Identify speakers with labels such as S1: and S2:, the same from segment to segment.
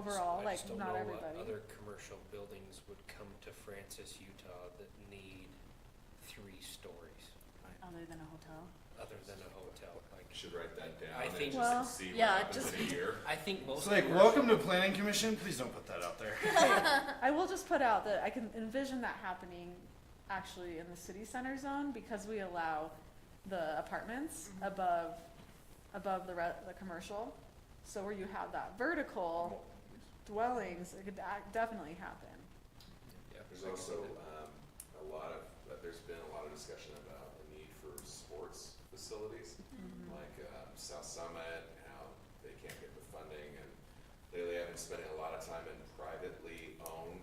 S1: overall, like not
S2: I just don't know what
S1: everybody.
S2: other commercial buildings would come to Francis, Utah that need three stories,
S1: Other than a hotel.
S2: other than a hotel, like.
S3: Should write that down
S2: I
S3: and
S2: think-
S1: Well,
S3: just see what
S1: yeah,
S3: happens
S1: just-
S3: in a year.
S2: I think most.
S4: It's like,
S2: commercial-
S4: welcome to planning commission, please don't put that out there.
S1: I will just put out that I can envision that happening actually in the city center zone because we allow the apartments
S2: Mm-hmm.
S1: above, above the re- the commercial. So where you have that vertical dwellings, it could ac- definitely happen.
S2: Yeah, I
S3: There's
S2: can see
S3: also,
S2: that.
S3: um, a lot of, uh, there's been a lot of discussion about the need for sports facilities,
S1: Mm-hmm.
S3: like, um, South Summit, and how they can't get the funding, and lately I've been spending a lot of time in privately owned,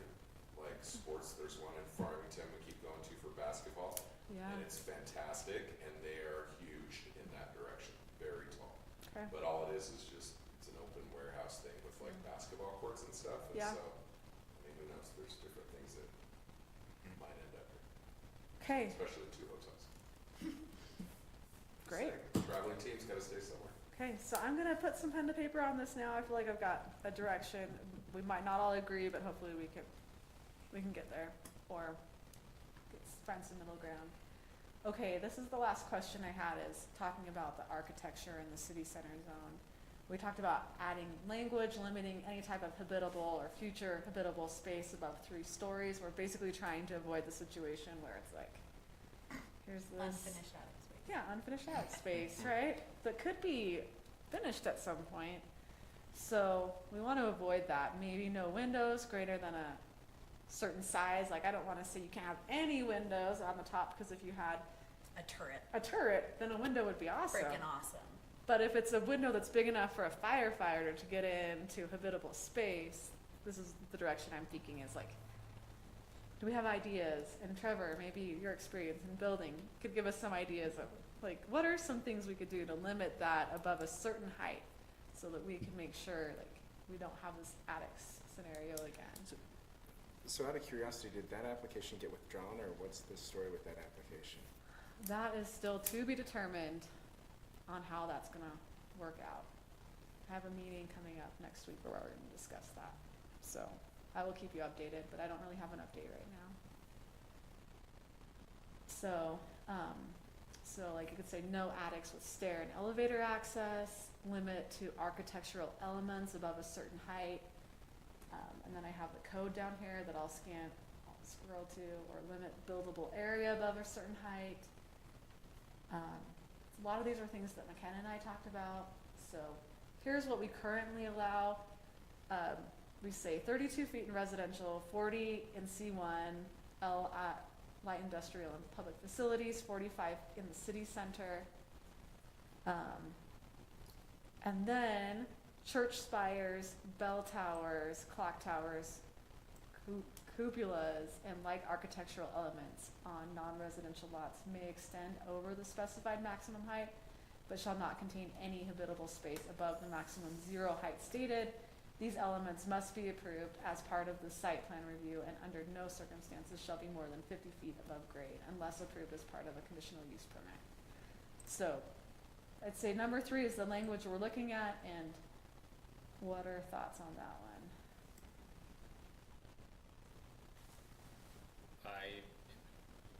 S3: like, sports, there's one in Farmington we keep going to for basketball,
S1: Yeah,
S3: and it's fantastic, and they are huge in that direction, very tall.
S1: okay, Mm.
S3: But all it is is just, it's an open warehouse thing with like basketball courts and stuff, and
S1: Yeah.
S3: so, I mean, who knows, there's different things that might end up here,
S1: okay,
S3: especially the two hotels.
S1: great.
S3: Traveling teams gotta stay somewhere.
S1: Okay, so I'm gonna put some pen to paper on this now. I feel like I've got a direction. We might not all agree, but hopefully we can, we can get there or get- find some middle ground. Okay, this is the last question I had is talking about the architecture in the city center zone. We talked about adding language, limiting any type of habitable or future habitable space above three stories. We're basically trying to avoid the situation where it's like, here's this.
S5: Unfinished attic space.
S1: Yeah, unfinished out space, right? That could be finished at some point. So we want to avoid that. Maybe no windows greater than a certain size. Like I don't want to say you can't have any windows on the top because if you had
S5: A turret,
S1: a turret, then a window would be awesome.
S5: freaking awesome.
S1: But if it's a window that's big enough for a firefighter to get into habitable space, this is the direction I'm thinking is like, do we have ideas? And Trevor, maybe your experience in building could give us some ideas of like, what are some things we could do to limit that above a certain height so that we can make sure like we don't have this attic s- scenario again?
S6: So out of curiosity, did that application get withdrawn, or what's the story with that application?
S1: That is still to be determined on how that's gonna work out. I have a meeting coming up next week where we're gonna discuss that, so I will keep you updated, but I don't really have an update right now. So, um, so like you could say no attics with stair and elevator access, limit to architectural elements above a certain height. Um, and then I have the code down here that I'll scan, I'll scroll to, or limit buildable area above a certain height. Um, a lot of these are things that McKenna and I talked about, so here's what we currently allow. Um, we say thirty-two feet in residential, forty in C one, L I, light industrial and public facilities, forty-five in the city center. Um, and then church spires, bell towers, clock towers, cu- cupolas, and like architectural elements on non-residential lots may extend over the specified maximum height, but shall not contain any habitable space above the maximum zero height stated. These elements must be approved as part of the site plan review and under no circumstances shall be more than fifty feet above grade unless approved as part of a conditional use permit. So, I'd say number three is the language we're looking at, and what are thoughts on that one?
S2: I,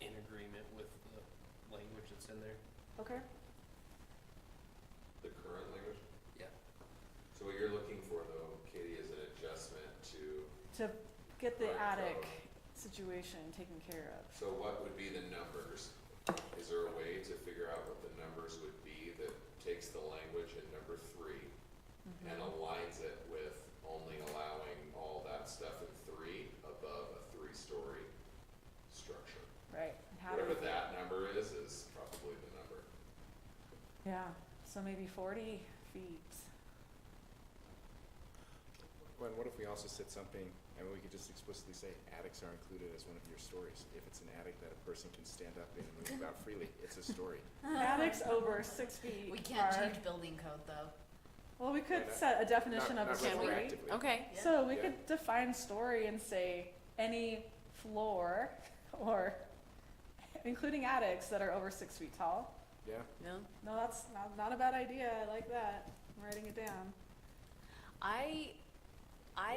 S2: in agreement with the language that's in there.
S1: Okay.
S3: The current language?
S2: Yeah.
S3: So what you're looking for though, Katie, is an adjustment to,
S1: To get the
S3: Right,
S1: attic
S3: so-
S1: situation taken care of.
S3: so what would be the numbers? Is there a way to figure out what the numbers would be that takes the language in number three
S1: Mm-hmm.
S3: and aligns it with only allowing all that stuff in three above a three-story structure.
S1: Right, and how do
S3: Whatever
S1: we,
S3: that number is, is probably the number.
S1: yeah, so maybe forty feet.
S6: Well, And what if we also said something, and we could just explicitly say attics are included as one of your stories? If it's an attic that a person can stand up in and move about freely, it's a story.
S1: Attics over six feet
S5: We can't
S1: are-
S5: change building code though.
S1: well, we could
S6: Yeah,
S1: set a definition
S6: Not-
S1: of a
S6: not
S1: story.
S6: retroactively.
S7: Okay.
S5: Yeah.
S1: So we
S6: Yeah.
S1: could define story and say any floor or including attics that are over six feet tall.
S6: Yeah,
S7: No.
S1: No, that's not, not a bad idea. I like that. I'm writing it down.
S7: I